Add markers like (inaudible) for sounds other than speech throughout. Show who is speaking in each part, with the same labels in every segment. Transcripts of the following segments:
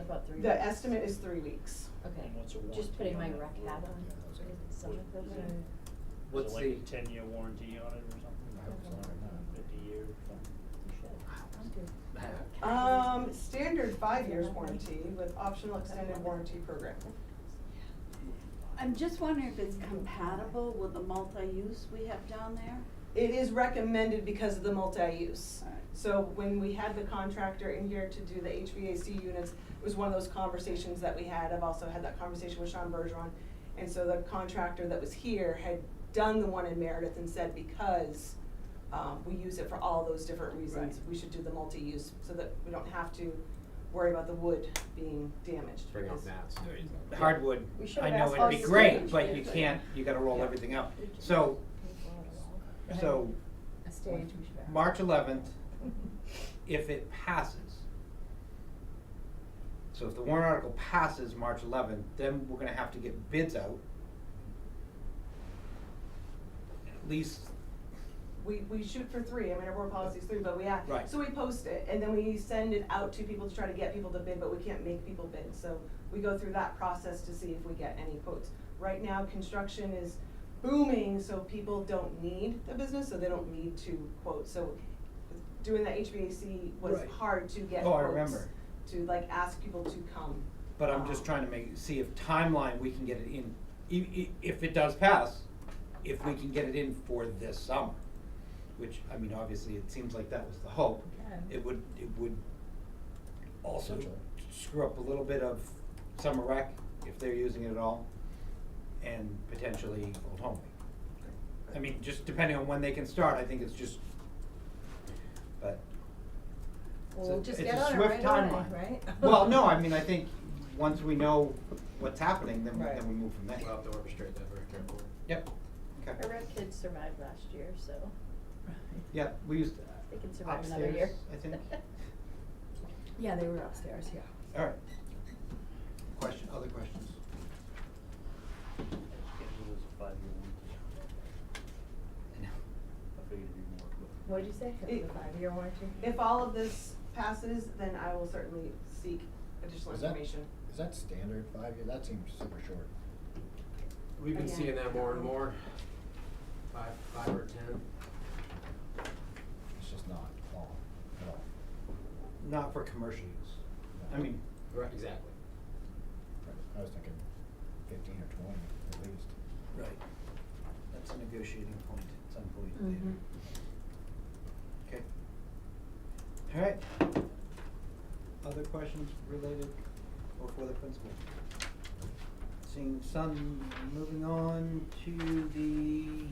Speaker 1: about three
Speaker 2: The
Speaker 1: weeks.
Speaker 2: estimate is three weeks.
Speaker 1: Okay,
Speaker 3: And what's a
Speaker 1: just putting my
Speaker 3: warranty on
Speaker 1: rec
Speaker 3: that?
Speaker 1: hat on, is it summer
Speaker 3: Is
Speaker 1: program?
Speaker 3: What's
Speaker 4: What's
Speaker 3: like a
Speaker 4: the-
Speaker 3: ten-year warranty on it or something?
Speaker 4: I hope so, I don't know.
Speaker 3: Fifty years or something?
Speaker 1: You should. I'm good.
Speaker 2: Um, standard five years warranty with optional extended warranty program.
Speaker 5: I'm just wondering if it's compatible with the multi-use we have down there?
Speaker 2: It is recommended because of the multi-use.
Speaker 5: Alright.
Speaker 2: So when we had the contractor in here to do the HVAC units, it was one of those conversations that we had. I've also had that conversation with Sean Bergeron. And so the contractor that was here had done the one in Meredith and said, because, um, we use it for all those different reasons,
Speaker 5: Right.
Speaker 2: we should do the multi-use so that we don't have to worry about the wood being damaged.
Speaker 4: Bring out
Speaker 2: because-
Speaker 4: mats. Hardwood,
Speaker 1: We should
Speaker 4: I
Speaker 1: have
Speaker 4: know
Speaker 1: asked
Speaker 4: it'd be
Speaker 1: us to
Speaker 4: great,
Speaker 1: change
Speaker 4: but
Speaker 1: it.
Speaker 4: you can't, you gotta roll
Speaker 2: Yeah.
Speaker 4: everything out. So, so
Speaker 1: A stage.
Speaker 4: March eleventh, if it passes. So if the warrant article passes March eleventh, then we're gonna have to get bids out. At least,
Speaker 2: we, we shoot for three, I mean, our board policy's three, but we act.
Speaker 4: Right.
Speaker 2: So we post it, and then we send it out to people to try to get people to bid, but we can't make people bid, so we go through that process to see if we get any quotes. Right now, construction is booming, so people don't need the business, so they don't need to quote, so doing the HVAC was
Speaker 4: Right.
Speaker 2: hard to get
Speaker 4: Oh, I
Speaker 2: quotes,
Speaker 4: remember.
Speaker 2: To like ask people to come. Um,
Speaker 4: but I'm just trying to make, see if timeline, we can get it in, i- i- if it does pass, if we can get it in for this summer. Which, I mean, obviously, it seems like that was the hope. It would, it would also
Speaker 3: Potential.
Speaker 4: screw up a little bit of summer rec, if they're using it at all, and potentially Old Home Week. I mean, just depending on when they can start, I think it's just, but it's
Speaker 1: Well,
Speaker 4: a,
Speaker 1: just
Speaker 4: it's
Speaker 1: get
Speaker 4: a
Speaker 1: on it
Speaker 4: swift
Speaker 1: right on
Speaker 4: timeline.
Speaker 1: it, right?
Speaker 4: (laughs) Well, no, I mean, I think, once we know what's happening, then, we-
Speaker 1: Right.
Speaker 4: then we move from there.
Speaker 6: We'll have to orchestrate that very carefully.
Speaker 4: Yep,
Speaker 1: (laughs) Our
Speaker 4: okay,
Speaker 1: rec kids survived last year, so
Speaker 4: yeah, we used
Speaker 1: they can survive another year.
Speaker 4: upstairs,
Speaker 1: (laughs)
Speaker 4: I think.
Speaker 1: Yeah, they were upstairs, yeah.
Speaker 4: Alright. Question, other questions?
Speaker 3: It was a five-year warranty. I figured it'd be more, but.
Speaker 1: What'd you say, it was a five-year warranty?
Speaker 2: If all of this passes, then I will certainly seek additional
Speaker 6: Is that-
Speaker 2: information.
Speaker 6: Is that standard five year? That seems super short.
Speaker 7: We've been
Speaker 2: Again.
Speaker 7: seeing that more and more, five, five or ten.
Speaker 6: It's just not long at all.
Speaker 4: Not for commercial use, I mean,
Speaker 7: Right, exactly.
Speaker 6: I was thinking fifteen or twenty at least.
Speaker 4: Right. That's a negotiating point at some point
Speaker 1: Mhm.
Speaker 4: later. Okay. All right. Other questions related or for the principal? Seeing some, moving on to the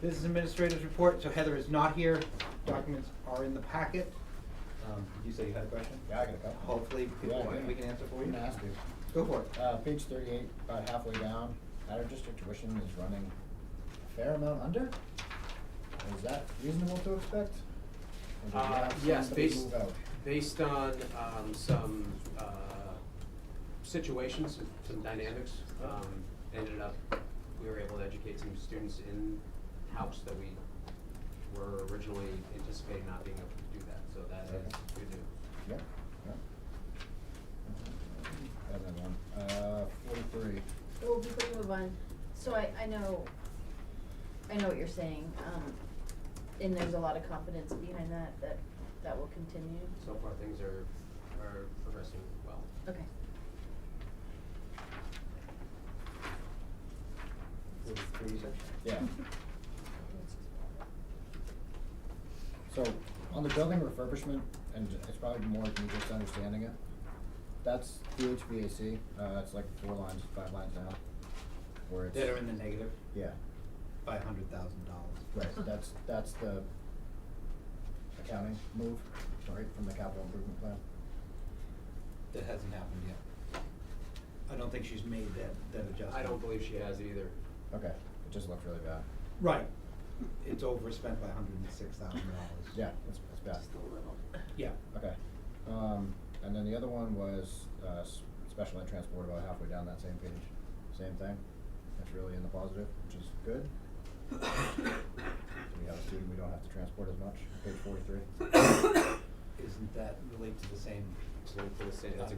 Speaker 4: business administrator's report. So Heather is not here. Documents are in the packet. Um, did you say you had a question?
Speaker 6: Yeah, I got a couple.
Speaker 4: Hopefully people,
Speaker 6: Yeah, yeah.
Speaker 4: we can answer for you.
Speaker 6: I'm gonna ask you.
Speaker 4: Go for it.
Speaker 6: Uh, page thirty-eight, about halfway down, out of district tuition is running a fair amount under? Is that reasonable to expect? Or did we
Speaker 7: Uh,
Speaker 6: have
Speaker 7: yes,
Speaker 6: somebody
Speaker 7: based,
Speaker 6: move out?
Speaker 7: based on, um, some, uh, situations, some dynamics, um, ended up, we were able to educate some students in-house that we were originally anticipating not being able to do that, so that is
Speaker 6: Okay.
Speaker 7: good news.
Speaker 6: Yep, yep. Another one, uh, forty-three.
Speaker 1: Well, before we move on, so I, I know, I know what you're saying, um, and there's a lot of confidence behind that, that, that will continue.
Speaker 7: So far, things are, are progressing well.
Speaker 1: Okay.
Speaker 4: (laughs)
Speaker 6: Yeah. So, on the building refurbishment, and it's probably more than just understanding it, that's the HVAC, uh, it's like four lines, five lines now, where it's.
Speaker 4: That are in the negative
Speaker 6: Yeah,
Speaker 4: by a hundred thousand dollars.
Speaker 6: right, that's, that's the accounting move, right, from the capital improvement plan.
Speaker 4: That hasn't happened yet. I don't think she's made that, that adjustment.
Speaker 7: I don't believe she has either.
Speaker 6: Okay, it just looked really bad.
Speaker 4: Right. It's overspent by hundred and six thousand dollars.
Speaker 6: Yeah, it's, it's bad.
Speaker 4: Yeah.
Speaker 6: Okay. Um, and then the other one was, uh, s- special ed transport about halfway down that same page, same thing. That's really in the positive, which is good. (coughs) (coughs) So we have a student we don't have to transport as much, page forty-three.
Speaker 8: isn't that relate to the same
Speaker 4: It's linked to the same, that's